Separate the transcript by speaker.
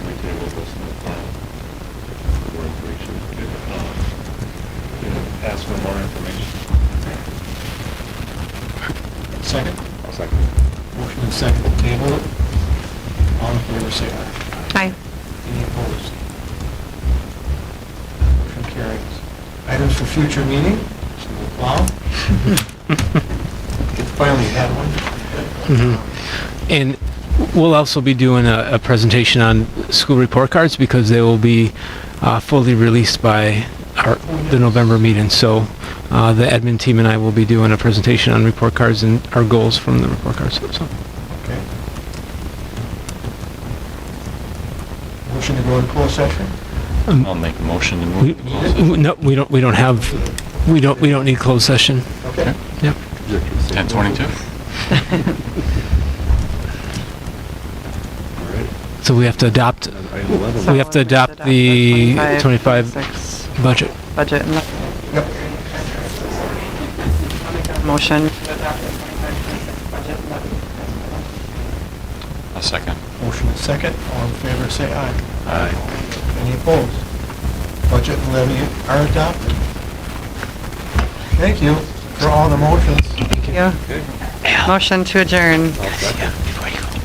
Speaker 1: second to table it. All in favor, say aye.
Speaker 2: Aye.
Speaker 1: Any opposed? Motion carries. Items for future meeting, so we'll plow. Finally had one.
Speaker 3: And we'll also be doing a, a presentation on school report cards because they will be uh, fully released by our, the November meeting. So uh, the admin team and I will be doing a presentation on report cards and our goals from the report cards. So
Speaker 1: Okay. Motion to go in closed session?
Speaker 4: I'll make a motion to
Speaker 3: we,
Speaker 4: move. to close
Speaker 3: w- no, we don't. We don't have. We don't. We don't need closed session.
Speaker 1: Okay.
Speaker 3: Yep.
Speaker 4: it. 10:22?
Speaker 3: So we have to adopt
Speaker 2: So
Speaker 3: We have to
Speaker 2: we'll
Speaker 3: adopt
Speaker 2: just
Speaker 3: the 25
Speaker 2: 26
Speaker 3: budget.
Speaker 2: Budget and the
Speaker 1: Yep.
Speaker 2: motion.
Speaker 4: A second.
Speaker 1: Motion is second. All in favor, say aye. Any opposed? Budget and levy are adopted. Thank you for all the motions.
Speaker 2: Thank you. Motion to adjourn.